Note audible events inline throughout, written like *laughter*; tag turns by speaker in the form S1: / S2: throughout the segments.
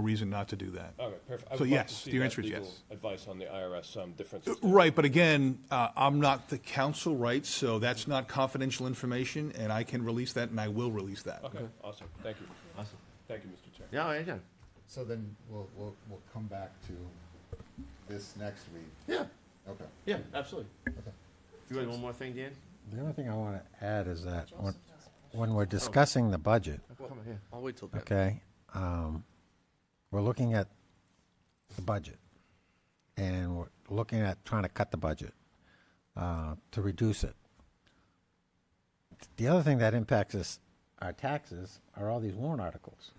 S1: reason not to do that.
S2: All right, perfect. I
S1: So
S2: would love to
S1: yes,
S2: see
S1: your
S2: that
S1: answer is
S2: legal
S1: yes. Uh,
S2: Advice on the IRS, some um, differences.
S1: Right, but again, uh, I'm not the counsel, right? So that's not confidential information, and I can release that, and I will release that.
S2: Okay, awesome, thank you. Awesome. Thank you, Mr. Chair.
S3: Yeah, yeah, yeah.
S4: So then we'll, we'll, we'll come back to this next week.
S3: Yeah,
S4: Okay.
S3: yeah, absolutely. You had one more thing, Dan?
S5: The only thing I want to add is that when, when we're discussing the budget,
S3: Come here. I'll wait till then.
S5: okay, um, we're looking at the budget. And we're looking at trying to cut the budget, uh, to reduce it. The other thing that impacts us, our taxes, are all these warrant articles.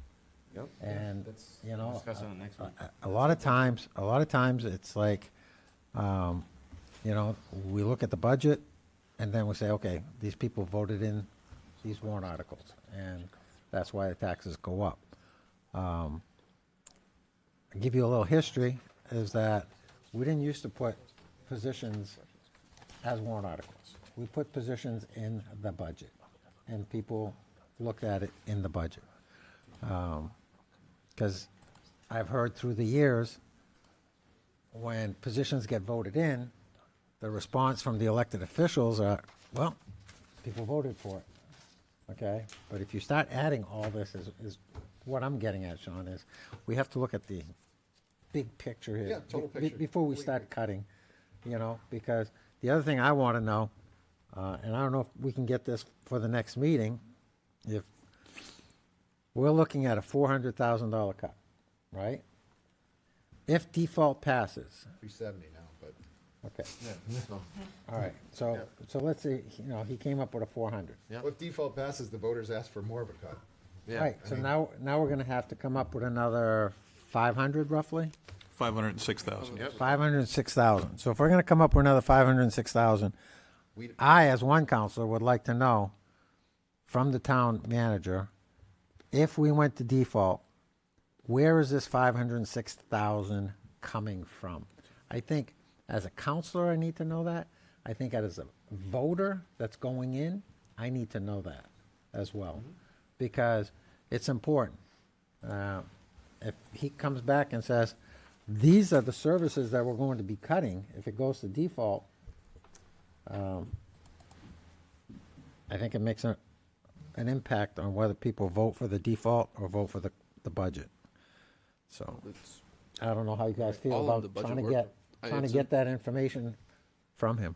S3: Yep.
S5: And,
S4: that's-
S5: you know,
S3: Discuss it on the next one.
S5: a- a lot of times, a lot of times, it's like, um, you know, we look at the budget, and then we say, okay, these people voted in these warrant articles, and that's why the taxes go up. Um, I give you a little history, is that we didn't used to put positions as warrant articles. We put positions in the budget, and people looked at it in the budget because I've heard through the years, when positions get voted in, the response from the elected officials are, well, people voted for it. Okay, but if you start adding all this, is, is what I'm getting at, Sean, is we have to look at the big picture here.
S4: Yeah, total
S5: be- be-
S4: picture.
S5: Before we start cutting, you know, because the other thing I want to know, uh, and I don't know if we can get this for the next meeting, if we're looking at a four hundred thousand dollar cut, right? If default passes,
S4: Three seventy now, but
S5: okay,
S3: Yeah, so,
S5: all right, so,
S3: Yeah.
S5: so let's say, you know, he came up with a four hundred.
S3: Yeah.
S4: Well, if default passes, the voters ask for more of a cut.
S3: yeah.
S5: Right, so now, now we're gonna have to come up with another five hundred roughly?
S1: Five hundred and six thousand.
S3: Yep.
S5: Five hundred and six thousand. So if we're gonna come up with another five hundred and six thousand,
S4: We-
S5: I, as one counselor, would like to know from the town manager, if we went to default, where is this five hundred and six thousand coming from? I think as a counselor, I need to know that. I think as a voter that's going in, I need to know that as well, because it's important. Uh, If he comes back and says, these are the services that we're going to be cutting, if it goes to default, um, I think it makes a, an impact on whether people vote for the default or vote for the, the budget. So, I don't know how you guys feel
S6: All of the
S5: about
S6: budget
S5: trying to
S6: work-
S5: get,
S6: I-
S5: trying to
S6: it's a-
S5: get that information from him.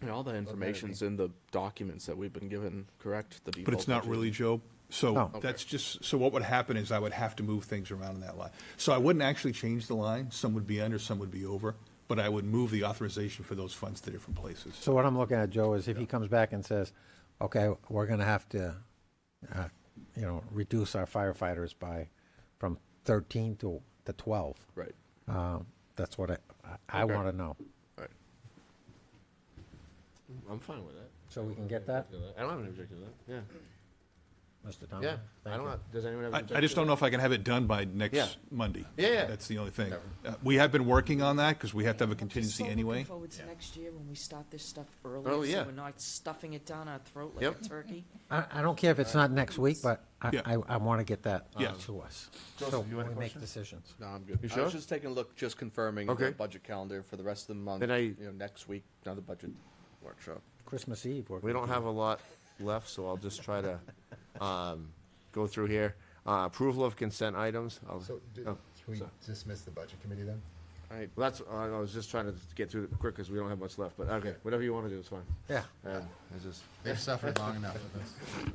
S6: And all that information's in the documents that we've been given, correct? The
S1: But it's
S6: default
S1: not
S6: budget.
S1: really, Joe.
S5: No.
S1: So
S5: Okay.
S1: that's just, so what would happen is I would have to move things around in that line. So I wouldn't actually change the line. Some would be under, some would be over, but I would move the authorization for those funds to different places.
S5: So what I'm looking at, Joe, is if he comes back and says, okay, we're gonna have to, uh, you know, reduce our firefighters by, from thirteen to, to twelve.
S6: Right,
S5: Um, that's what I, I, I
S6: Okay.
S5: wanna know.
S6: right.
S3: I'm fine with that.
S5: So we can get that,
S3: I don't have an objection to that,
S5: Mr.
S3: yeah.
S5: Tom?
S3: Yeah, I don't have, does anyone have an
S1: I,
S3: objection?
S1: I just don't know if I can have it done by
S3: Yeah.
S1: next Monday.
S3: Yeah, yeah.
S1: That's the only thing. Uh, We have been working on that because we have to have a contingency anyway.
S7: So looking forward to next year when we start this stuff
S3: Early,
S7: early,
S3: yeah.
S7: so we're not stuffing it down our throat like
S3: Yep.
S7: a turkey.
S5: I, I don't care if it's not next week, but I,
S1: Yeah.
S5: I, I want to get that
S1: Yeah.
S5: to us.
S3: Joseph,
S5: So
S3: you had a
S5: we make
S3: question?
S5: decisions.
S6: No, I'm good.
S3: You
S6: I
S3: sure?
S6: was just taking a look, just confirming
S3: Okay.
S6: the budget calendar for the rest of the month.
S3: Then I-
S6: You know, next week, another budget workshop.
S5: Christmas Eve. we're
S3: We don't
S5: gonna do
S3: have a lot left, so I'll just try *laughs* to, um, go through here. Uh, approval of consent items. I'll-
S4: So do,
S3: oh,
S4: can we
S3: sorry.
S4: dismiss the budget committee then?
S6: I,
S3: Well, that's, uh, I I was just trying to get through it quick because we don't have much left, but okay, whatever you want to do, it's fine.
S5: it. Yeah.
S3: Uh, It's just,
S4: They've suffered long enough with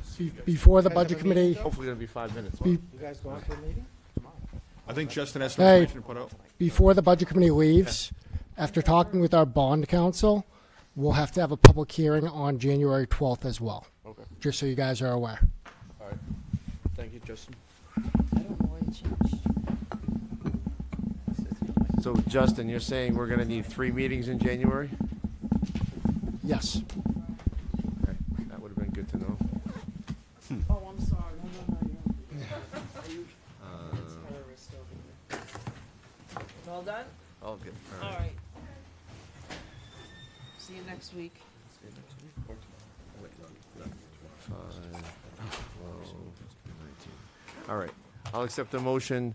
S4: this.
S8: Be- Before the budget committee,
S3: hopefully it'll be five minutes.
S8: be-
S1: I think Justin has some
S8: Hey.
S1: information to put out.
S8: before the budget committee leaves, after talking with our bond council, we'll have to have a public hearing on January 12th as well,
S6: okay,
S8: just so you guys are aware.
S6: all right. Thank you, Justin.
S7: *laughs* I don't know why it changed.
S3: So Justin, you're saying we're going to need three meetings in January?
S8: Yes.
S3: Okay, That would have been good to know.
S9: Oh, I'm sorry. No, no, no, you don't.
S7: *laughs*
S9: Are you-
S7: Uh,
S9: It's terrorist over here.
S7: All done?
S6: All good.
S7: All right. See you next week.
S3: Five, twelve, nineteen. All right. I'll accept the motion